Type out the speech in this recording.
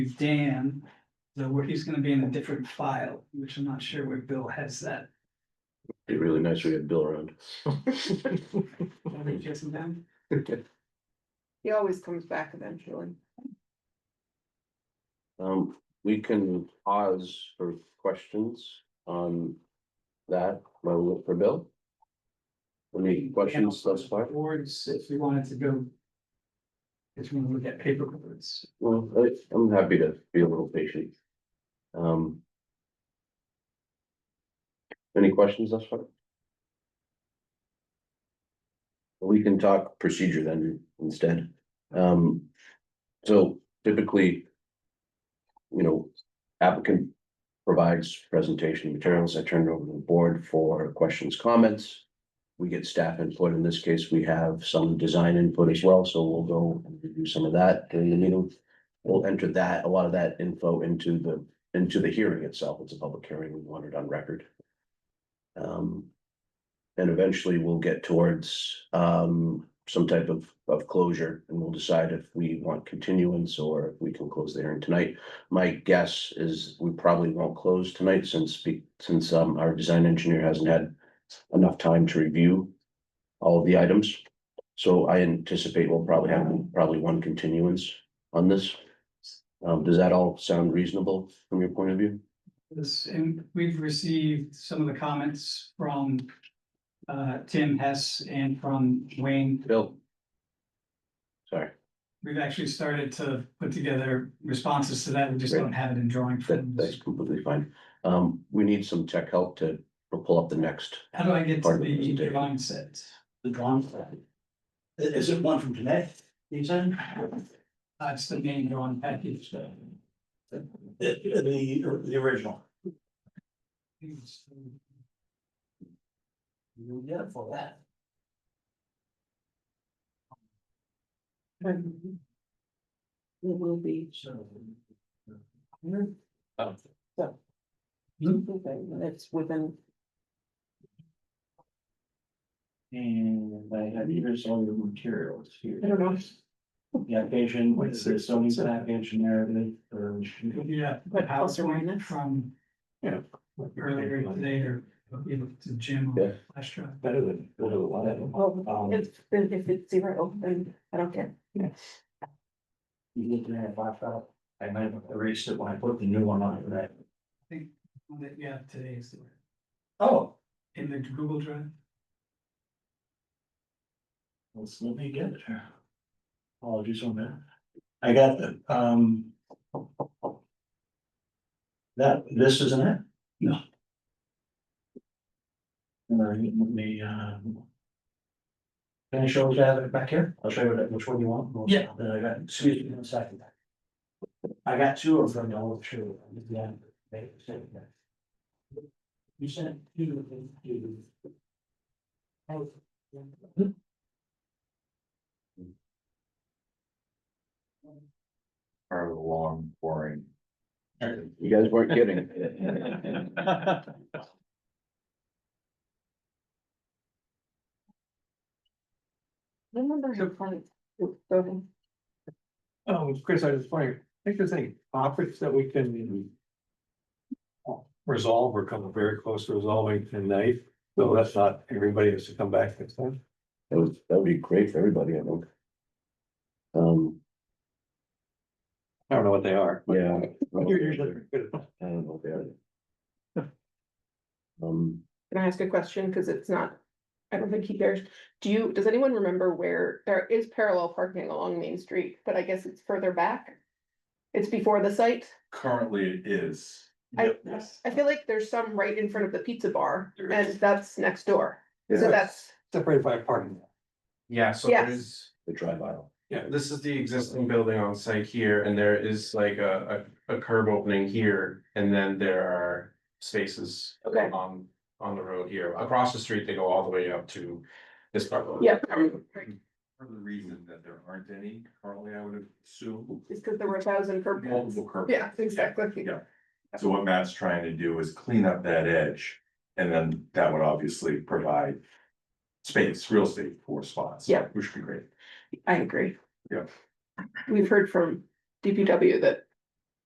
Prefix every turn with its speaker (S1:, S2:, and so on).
S1: Dan, the, where he's gonna be in a different file, which I'm not sure where Bill has that.
S2: Be really nice we had Bill around.
S1: Have you just done?
S3: He always comes back eventually.
S2: Um, we can pause for questions on that, my look for Bill. Any questions thus far?
S1: Boards, if we wanted to go. If we look at paper boards,
S2: Well, I- I'm happy to be a little patient. Um. Any questions thus far? We can talk procedure then instead. Um, so typically. You know, applicant provides presentation materials. I turn it over to the board for questions, comments. We get staff input. In this case, we have some design input as well, so we'll go and review some of that during the meeting we'll enter that, a lot of that info into the, into the hearing itself. It's a public hearing. We want it on record. Um, and eventually we'll get towards, um, some type of, of closure and we'll decide if we want continuance or if we can close the hearing tonight. My guess is we probably won't close tonight since, be- since, um, our design engineer hasn't had enough time to review all of the items. So I anticipate we'll probably have probably one continuance on this. Um, does that all sound reasonable from your point of view?
S1: this, and we've received some of the comments from. Uh, Tim Hess and from Wayne,
S2: Bill? Sorry,
S1: we've actually started to put together responses to that, we just don't have it in drawing
S2: that,
S1: form.
S2: that's completely fine. Um, we need some tech help to we'll pull up the next.
S1: How do I get to
S2: Part of the
S1: the
S2: presentation.
S1: drawing set?
S4: the drawing set. I- Is it one from today, you said?
S1: That's the main drawing package, so.
S4: The, the, the original. You get it for that.
S3: It will be.
S4: So.
S3: It's within,
S4: And I have here's all your materials
S3: I
S4: here.
S3: don't know,
S4: The application, is there so many application narrative or?
S1: Yeah, but
S3: But plus or
S1: PowerPoint
S3: minus.
S1: from.
S4: Yeah.
S1: Earlier today or even to Jim
S2: Yeah.
S1: or flash drive.
S4: Better than, better than whatever.
S3: well,
S4: Um,
S3: if, if it's zero, then I don't care.
S4: you get to that laptop, I might have erased it when I put the new one on, right?
S1: One That you have today is the-
S4: Oh.
S1: in the Google Drive.
S4: Let's let me get it here. Apologies on that. I got the, um. That, this isn't it?
S1: No.
S4: All right, let me, um. Can I show you that back here? I'll show you that- which one you want.
S1: Yeah.
S4: Then I got, excuse me one second. I got two of them, I'll show you. Yeah, they said that. You sent two of them to. Oh.
S5: part of the long boring.
S2: You guys weren't kidding.
S3: Remember her point. Go ahead.
S6: Oh, Chris, I was wondering, I think there's any topics that we can. Resolve or come very close to resolving tonight, so that's not, everybody has to come back next time.
S2: That would, that would be great for everybody, I think. Um,
S6: I don't know what they are. but-
S2: yeah.
S6: You're usually good at
S2: I don't know if they are. Um,
S3: Can I ask a question? Because it's not, I don't think he cares. Do you, does anyone remember where there is parallel parking along Main Street, but I guess it's further back? It's before the site.
S5: Currently it is.
S3: I,
S5: Yes.
S3: I feel like there's some right in front of the pizza bar
S5: There
S3: and
S5: is.
S3: that's next door. So that's,
S6: Separated by a parking lot.
S5: Yeah, so
S3: Yes.
S5: there's,
S2: the drive aisle.
S5: this is the existing building on site here, and there is like a, a, a curb opening here, and then there are spaces.
S3: Okay.
S5: On, on the road here, across the street, they go all the way up to this part.
S3: yeah,
S7: For the reason that there aren't any currently, I would assume.
S3: it's because there were a thousand curb cuts.
S7: Multiple curb.
S3: Yeah, exactly.
S7: Yeah. So what Matt's trying to do is clean up that edge, and then that would obviously provide. Space, real estate for spots.
S3: Yeah.
S7: Which would be great.
S3: I agree.
S7: Yeah.
S3: We've heard from DPW that